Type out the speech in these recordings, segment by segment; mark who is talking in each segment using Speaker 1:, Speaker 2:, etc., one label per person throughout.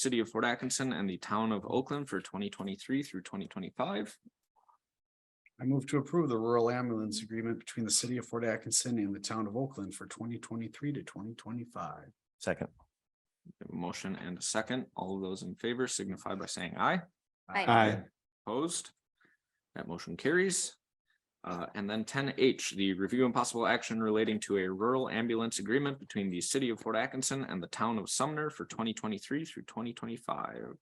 Speaker 1: city of Fort Atkinson and the town of Oakland for twenty twenty-three through twenty twenty-five.
Speaker 2: I move to approve the rural ambulance agreement between the city of Fort Atkinson and the town of Oakland for twenty twenty-three to twenty twenty-five.
Speaker 3: second,
Speaker 1: Motion and a second. All of those in favor signify by saying aye.
Speaker 4: Aye.
Speaker 5: Aye.
Speaker 1: Opposed? That motion carries. Uh, and then ten H, the review and possible action relating to a rural ambulance agreement between the city of Fort Atkinson and the town of Sumner for twenty twenty-three through twenty twenty-five.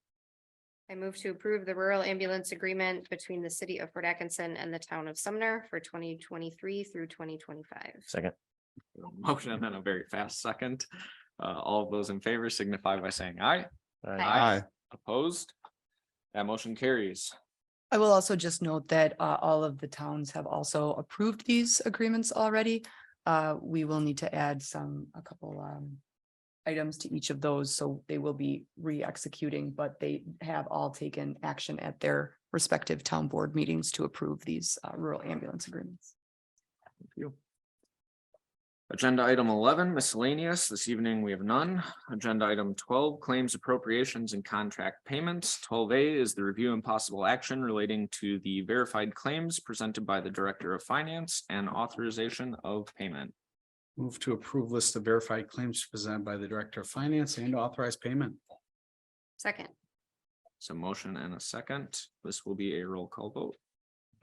Speaker 4: I move to approve the rural ambulance agreement between the city of Port Atkinson and the town of Sumner for twenty twenty-three through twenty twenty-five.
Speaker 3: second,
Speaker 1: Motion and then a very fast second. Uh, all of those in favor signify by saying aye.
Speaker 3: aye,
Speaker 4: Aye.
Speaker 5: Aye.
Speaker 1: Opposed? That motion carries.
Speaker 6: I will also just note that uh, all of the towns have also approved these agreements already. Uh, We will need to add some, a couple um, items to each of those, so they will be re-executing, but they have all taken action at their respective town board meetings to approve these uh, rural ambulance agreements.
Speaker 1: Agenda item eleven miscellaneous. This evening we have none. Agenda item twelve claims appropriations and contract payments. Twelve A is the review and possible action relating to the verified claims presented by the Director of Finance and authorization of payment.
Speaker 2: Move to approve list of verified claims presented by the Director of Finance and authorized payment.
Speaker 4: Second,
Speaker 1: So motion and a second. This will be a roll call vote.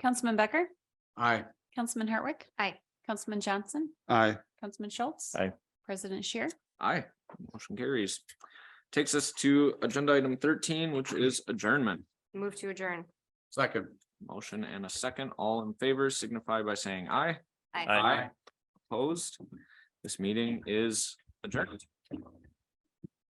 Speaker 7: Councilman Becker,
Speaker 2: Aye.
Speaker 7: Councilman Hartwick.
Speaker 4: Aye.
Speaker 7: Councilman Johnson,
Speaker 5: Aye.
Speaker 7: Councilman Schultz.
Speaker 3: Aye.
Speaker 7: President Shear,
Speaker 1: Aye, motion carries. Takes us to agenda item thirteen, which is adjournment.
Speaker 4: move to adjourn.
Speaker 2: Second.
Speaker 1: Motion and a second. All in favor signify by saying aye.
Speaker 4: Aye.
Speaker 3: Aye.
Speaker 1: Opposed? This meeting is adjourned.